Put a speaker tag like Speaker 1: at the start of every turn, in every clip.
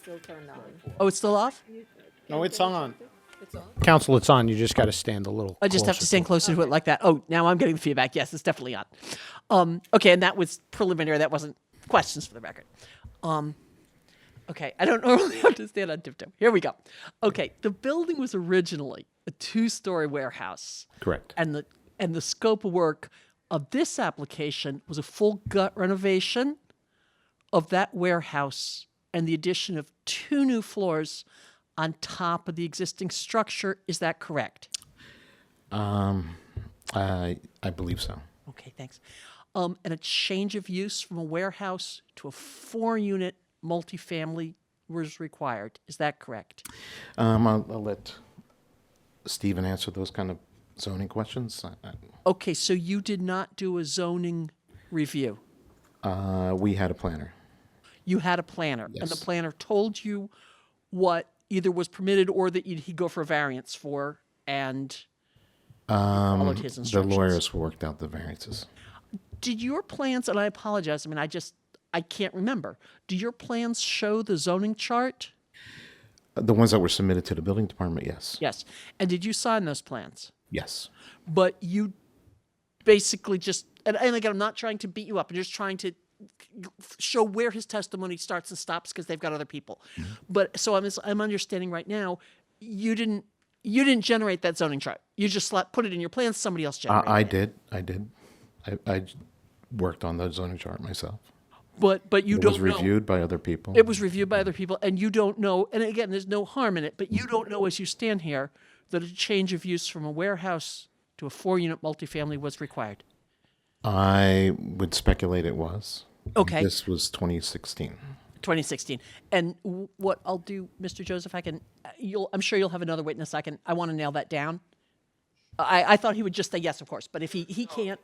Speaker 1: still turned on.
Speaker 2: Oh, it's still off?
Speaker 3: No, it's on.
Speaker 1: It's on?
Speaker 3: Council, it's on. You just got to stand a little.
Speaker 2: I just have to stand closer to it like that. Oh, now I'm getting the feedback. Yes, it's definitely on. Um, okay, and that was preliminary. That wasn't questions for the record. Um, okay, I don't normally have to stand on tiptoe. Here we go. Okay, the building was originally a two-story warehouse.
Speaker 4: Correct.
Speaker 2: and the and the scope of work of this application was a full gut renovation of that warehouse and the addition of two new floors on top of the existing structure. Is that correct?
Speaker 4: Um, I I believe so.
Speaker 2: Okay, thanks. Um, and a change of use from a warehouse to a four-unit multifamily was required. Is that correct?
Speaker 4: Um, I'll, I'll let Stephen answer those kind of zoning questions. I- I-
Speaker 2: Okay, so you did not do a zoning review.
Speaker 4: Uh, we had a planner.
Speaker 2: you had a planner and the planner told you what either was permitted or that you'd, he'd go for a variance for and
Speaker 4: Um,
Speaker 2: followed his
Speaker 4: the
Speaker 2: instructions.
Speaker 4: lawyers worked out the variances.
Speaker 2: Did your plans, and I apologize, I mean, I just, I can't remember. Do your plans show the zoning chart?
Speaker 4: Uh, The ones that were submitted to the building department, yes.
Speaker 2: Yes. And did you sign those plans?
Speaker 4: Yes.
Speaker 2: But you basically just, and, and again, I'm not trying to beat you up, I'm just trying to show where his testimony starts and stops because they've got other people.
Speaker 4: Mm-hmm.
Speaker 2: But so I'm, I'm understanding right now, you didn't you didn't generate that zoning chart. You just slapped, put it in your plans. Somebody else generated.
Speaker 4: Uh, I, I
Speaker 2: it.
Speaker 4: did. I did. I, I worked on the zoning chart myself.
Speaker 2: But but you
Speaker 4: It
Speaker 2: don't
Speaker 4: was
Speaker 2: know.
Speaker 4: reviewed by other people.
Speaker 2: It was reviewed by other people, and you don't know. And again, there's no harm in it, but you don't know as you stand here that a change of use from a warehouse to a four-unit multifamily was required.
Speaker 4: I would speculate it was.
Speaker 2: Okay.
Speaker 4: This was 2016.
Speaker 2: 2016. And w- what I'll do, Mr. Joseph, I can, uh, you'll, I'm sure you'll have another witness. I can, I want to nail that down. I, I thought he would just say yes, of course, but if he, he can't,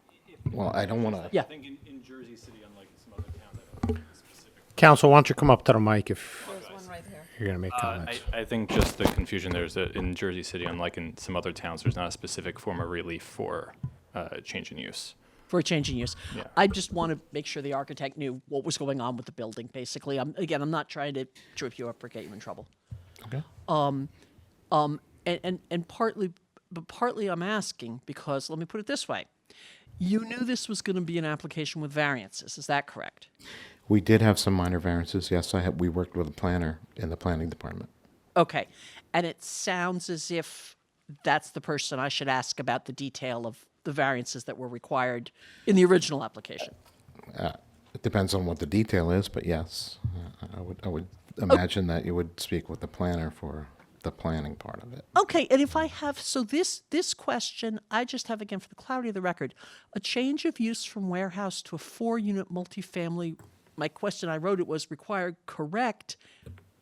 Speaker 4: Well, I don't want to.
Speaker 2: Yeah.
Speaker 5: I think in, in Jersey City, unlike some other town that have specific.
Speaker 3: Council, why don't you come up to the mic if
Speaker 1: There's one right there.
Speaker 3: you're going to make
Speaker 5: Uh, I,
Speaker 3: comments?
Speaker 5: I think just the confusion there is that in Jersey City, unlike in some other towns, there's not a specific form of relief for uh, change in use.
Speaker 2: for a change in use. I just want to make sure the architect knew what was going on with the building, basically. I'm, again, I'm not trying to trip you up or get you in trouble.
Speaker 4: Okay.
Speaker 2: Um, and, and, and partly, but partly I'm asking because, let me put it this way. You knew this was going to be an application with variances. Is that correct?
Speaker 4: We did have some minor variances. Yes, I had, we worked with a planner in the planning department.
Speaker 2: Okay. And it sounds as if that's the person I should ask about the detail of the variances that were required in the original application.
Speaker 4: It depends on what the detail is, but yes, I- I would, I would imagine that you would speak with the planner for the planning part of it.
Speaker 2: Okay, and if I have so this this question, I just have again for the clarity of the record, a change of use from warehouse to a four-unit multifamily. My question I wrote it was required correct.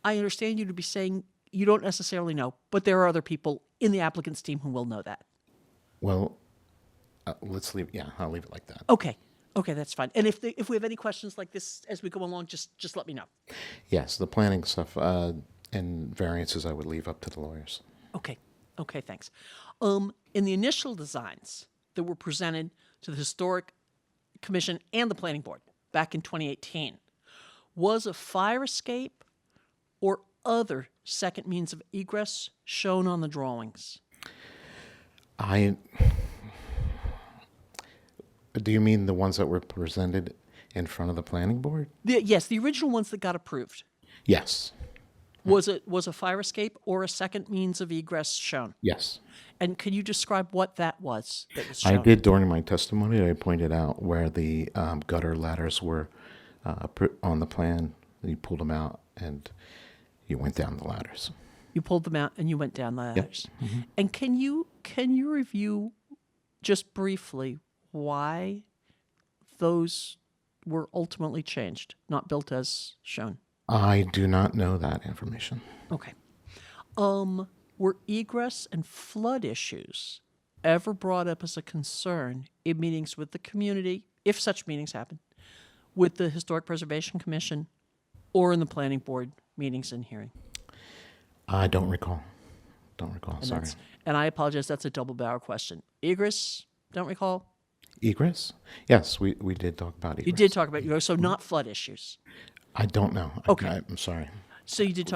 Speaker 2: I understand you to be saying you don't necessarily know, but there are other people in the applicant's team who will know that.
Speaker 4: Well, uh, let's leave, yeah, I'll leave it like that.
Speaker 2: Okay. Okay, that's fine. And if, the, if we have any questions like this as we go along, just just let me know.
Speaker 4: Yes, the planning stuff uh, and variances I would leave up to the lawyers.
Speaker 2: Okay. Okay, thanks. Um, in the initial designs that were presented to the Historic Commission and the Planning Board back in 2018, was a fire escape or other second means of egress shown on the drawings?
Speaker 4: I. Do you mean the ones that were presented in front of the planning board?
Speaker 2: The, yes, the original ones that got approved.
Speaker 4: Yes,
Speaker 2: Was it was a fire escape or a second means of egress shown?
Speaker 4: yes.
Speaker 2: And can you describe what that was that was
Speaker 4: I
Speaker 2: shown?
Speaker 4: did during my testimony. I pointed out where the um, gutter ladders were uh, pr- on the plan. You pulled them out and you went down the ladders.
Speaker 2: You pulled them out and you went down the ladders. And can you can you review just briefly why those were ultimately changed, not built as shown?
Speaker 4: I do not know that information.
Speaker 2: Okay. Um, were egress and flood issues ever brought up as a concern in meetings with the community, if such meetings happen, with the Historic Preservation Commission or in the planning board meetings and hearing?
Speaker 4: I don't recall. Don't recall.
Speaker 2: And
Speaker 4: sorry.
Speaker 2: that's- And I apologize, that's a double barrel question. Egress, don't recall.
Speaker 4: Egress? Yes, we, we did talk about egress.
Speaker 2: You did talk about egress, so not flood issues.
Speaker 4: I don't know.
Speaker 2: Okay.
Speaker 4: I, I'm sorry.
Speaker 2: So you did talk